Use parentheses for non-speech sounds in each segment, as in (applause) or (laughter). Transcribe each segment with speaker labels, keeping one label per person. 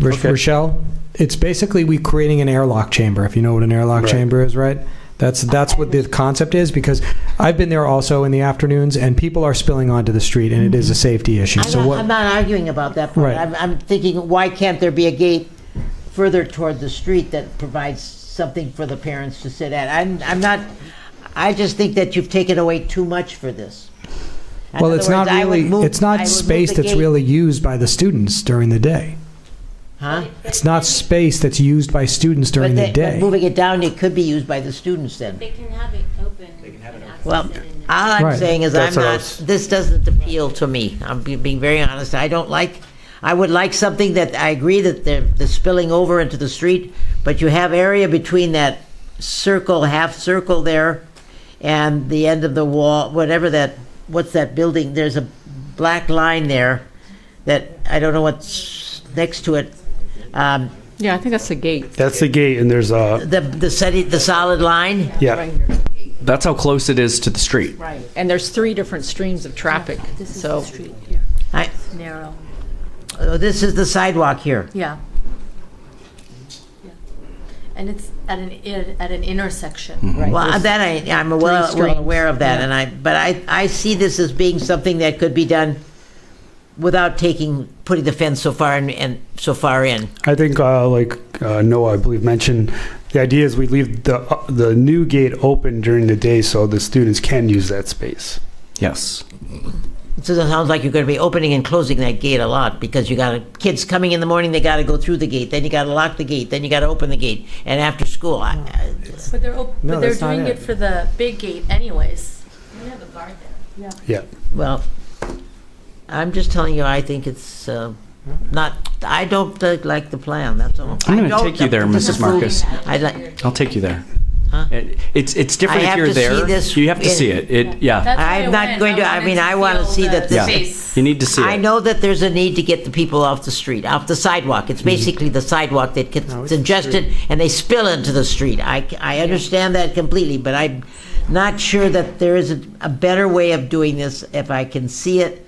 Speaker 1: Roch-
Speaker 2: Okay.
Speaker 1: Rochelle. It's basically we creating an airlock chamber. If you know what an airlock
Speaker 2: Right.
Speaker 1: chamber is, right? That's that's what the concept is because I've been there also in the afternoons and people are spilling onto the street and it is a safety issue.
Speaker 3: I'm
Speaker 1: so
Speaker 3: not,
Speaker 1: what?
Speaker 3: Mm-hmm. I'm not arguing about that part.
Speaker 1: Right.
Speaker 3: I'm, I'm thinking, why can't there be a gate further toward the street that provides something for the parents to sit at? I'm, I'm not, I just think that you've taken away too much for this. In
Speaker 1: well,
Speaker 3: other
Speaker 1: it's
Speaker 3: words,
Speaker 1: not
Speaker 3: I would
Speaker 1: really
Speaker 3: move-
Speaker 1: it's
Speaker 3: I would
Speaker 1: not
Speaker 3: move
Speaker 1: space
Speaker 3: the
Speaker 1: that's
Speaker 3: gate-
Speaker 1: really used by the students during the day.
Speaker 3: Huh?
Speaker 1: It's not space that's used by students during
Speaker 3: But
Speaker 1: the
Speaker 3: they- but
Speaker 1: day.
Speaker 3: Moving it down, it could be used by the students then.
Speaker 4: They can have it open. They can have it open.
Speaker 3: Well, uh, all I'm
Speaker 1: Right.
Speaker 3: saying is I'm
Speaker 2: That's what I
Speaker 3: not,
Speaker 2: was-
Speaker 3: this doesn't appeal to me. I'm be- being very honest. I don't like, I would like something that, I agree that they're, the spilling over into the street, but you have area between that circle, half circle there, and the end of the wall, whatever that, what's that building? There's a black line there that, I don't know what's next to it. Um,
Speaker 5: Yeah, I think that's the gate.
Speaker 2: That's the gate, and there's a,
Speaker 3: The, the steady, the solid line?
Speaker 2: yeah.
Speaker 5: Right here.
Speaker 6: That's how close it is to the street.
Speaker 5: Right. And there's three different streams of traffic,
Speaker 4: This is the
Speaker 5: so.
Speaker 4: street here,
Speaker 3: I,
Speaker 4: narrow.
Speaker 3: oh, this is the sidewalk here.
Speaker 4: Yeah. Yeah. And it's at an, i- at an
Speaker 3: Hmm.
Speaker 4: intersection.
Speaker 5: Right.
Speaker 3: Well, that I, I'm well, well
Speaker 5: streams.
Speaker 3: aware of that,
Speaker 5: Yeah.
Speaker 3: and I, but I, I see this as being something that could be done without taking, putting the fence so far in, and so far in.
Speaker 2: I think, uh, like uh, Noah, I believe, mentioned the idea is we leave the uh, the new gate open during the day so the students can use that space.
Speaker 6: Yes.
Speaker 3: So it sounds like you're going to be opening and closing that gate a lot because you got a, kids coming in the morning. They got to go through the gate, then you got to lock the gate, then you got to open the gate, and after school, I, I,
Speaker 4: But they're, op-
Speaker 1: No,
Speaker 4: but they're
Speaker 1: that's not
Speaker 4: doing
Speaker 1: it.
Speaker 4: it for the big gate anyways. You have a guard there.
Speaker 2: Yeah.
Speaker 3: well, I'm just telling you, I think it's. Uh, not, I don't uh, like the plan. That's all.
Speaker 6: I'm
Speaker 3: I
Speaker 6: gonna
Speaker 3: don't-
Speaker 6: take you there,
Speaker 3: I'm
Speaker 6: Mrs.
Speaker 3: disapproving.
Speaker 6: Marcus.
Speaker 3: I like.
Speaker 6: I'll take you there.
Speaker 3: Huh?
Speaker 6: It- It's, it's different
Speaker 3: I
Speaker 6: if
Speaker 3: have
Speaker 6: you're
Speaker 3: to see
Speaker 6: there.
Speaker 3: this
Speaker 6: You have to
Speaker 3: in-
Speaker 6: see it. It, yeah.
Speaker 4: That's why
Speaker 3: I'm not
Speaker 4: went.
Speaker 3: going to- I
Speaker 4: wanted
Speaker 3: mean, I wanna
Speaker 4: feel
Speaker 3: see that this
Speaker 6: Yeah.
Speaker 4: space.
Speaker 6: You need to see
Speaker 3: I
Speaker 6: it.
Speaker 3: know that there's a need to get the people off the street, off the sidewalk.
Speaker 2: Mm-hmm.
Speaker 3: It's basically the sidewalk that gets
Speaker 1: it's the
Speaker 3: congested and they spill into the street. I, I understand that completely, but I'm not sure that there is a, a better way of doing this if I can see it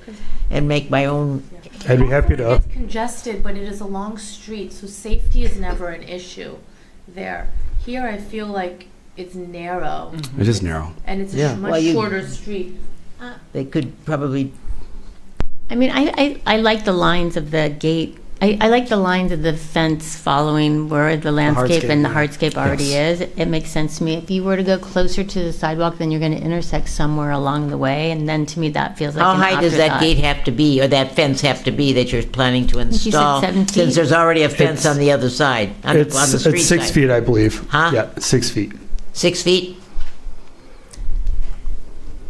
Speaker 3: and make my own.
Speaker 2: I'd be happy to.
Speaker 4: It's congested, but it is a long street, so safety is never an issue there. Here, I feel like it's narrow,
Speaker 6: It is narrow.
Speaker 4: and it's
Speaker 1: Yeah.
Speaker 4: a sh-
Speaker 3: Well,
Speaker 4: much
Speaker 3: you-
Speaker 4: shorter street.
Speaker 3: They could probably.
Speaker 7: I mean, I, I, I like the lines of the gate. I, I like the lines of the fence following where the landscape and the hardscape already is. It makes sense to me. If you were to go closer to the sidewalk, then you're going to intersect somewhere along the way, and then to me that feels like
Speaker 3: How
Speaker 7: an
Speaker 3: high does that
Speaker 7: afterthought.
Speaker 3: gate have to be, or that fence have to be that you're planning to
Speaker 7: said
Speaker 3: install?
Speaker 7: seven feet.
Speaker 3: Since there's already a fence
Speaker 2: It's-
Speaker 3: on the other side, on the, on the
Speaker 2: It's,
Speaker 3: street
Speaker 2: it's six
Speaker 3: side.
Speaker 2: feet, I believe.
Speaker 3: Huh?
Speaker 2: Yeah, six feet. (laughs)
Speaker 3: Six feet?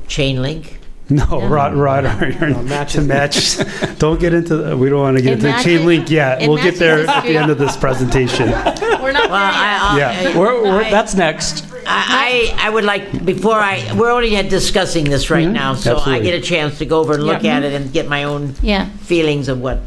Speaker 3: Chain link?
Speaker 2: No, rod, rod iron (laughs) to match. Don't get into. The, we don't want to get
Speaker 7: It
Speaker 2: into the chain
Speaker 7: matches-
Speaker 2: link yet.
Speaker 7: it
Speaker 2: We'll get
Speaker 7: matches
Speaker 2: there
Speaker 7: the
Speaker 2: at the end of this
Speaker 3: (laughs)
Speaker 2: presentation.
Speaker 4: We're
Speaker 3: Well,
Speaker 4: not there yet.
Speaker 3: I, I-
Speaker 2: Yeah.
Speaker 6: We're, we're,
Speaker 3: I-
Speaker 6: that's next.
Speaker 3: I, I I would like, before I, we're only discussing this right now, so
Speaker 2: Mm-hmm.
Speaker 3: I
Speaker 2: Absolutely.
Speaker 3: get a chance to go over and look at it and get my own
Speaker 7: Yeah.
Speaker 3: feelings of what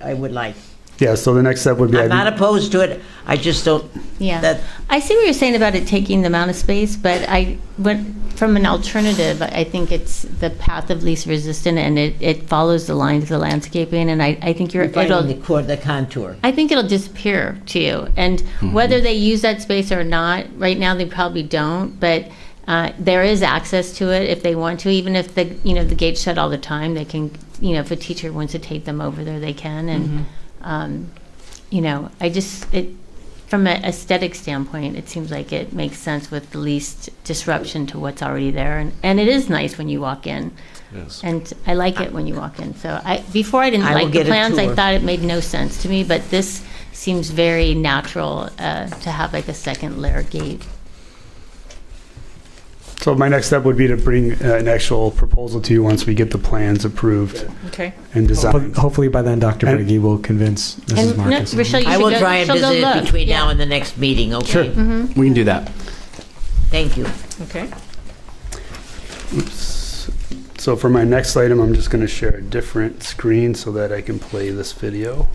Speaker 3: I would like.
Speaker 2: Yeah. So the next step would be.
Speaker 3: I'm
Speaker 2: I'd be-
Speaker 3: not opposed to it, I just don't,
Speaker 7: Yeah.
Speaker 3: that-
Speaker 7: I see what you're saying about it taking the amount of space, but I, but from an alternative, I think it's the path of least resistance, and it, it follows the lines of the landscaping, and I, I think you're, it'll,
Speaker 3: finding the core, the contour.
Speaker 7: I think it'll disappear to you. And whether they use that space or not, right now they probably don't, but uh, there is access to it if they want to, even if the, you know, the gate's shut all the time, they can, you know, if a teacher wants to take them over there, they can. And, um, you know, I just, it, from an aesthetic standpoint, it seems like it makes sense with the least disruption to what's already there. And, and it is nice when you walk in. And I like it when you walk in. So I, before I didn't
Speaker 3: I will
Speaker 7: like
Speaker 3: get a
Speaker 7: the plans, I
Speaker 3: tour.
Speaker 7: thought it made no sense to me, but this seems very natural uh, to have like a second layer gate.
Speaker 2: So my next step would be to bring uh, an actual proposal to you once we get the plans approved
Speaker 5: Okay.
Speaker 1: Hopefully,
Speaker 2: and designed.
Speaker 1: hopefully by then, Dr.
Speaker 2: And-
Speaker 1: Briggy will convince Mrs.
Speaker 7: And no,
Speaker 1: Marcus.
Speaker 7: Rochelle, you
Speaker 3: I
Speaker 7: should
Speaker 3: will
Speaker 7: go-
Speaker 3: try and
Speaker 7: she'll go
Speaker 3: visit it
Speaker 7: look.
Speaker 3: between
Speaker 7: Yeah.
Speaker 3: now and the next meeting, okay?
Speaker 6: We can do that.
Speaker 3: Thank you.
Speaker 5: Okay.
Speaker 2: Oops. So for my next item, I'm just going to share a different screen so that I can play this video.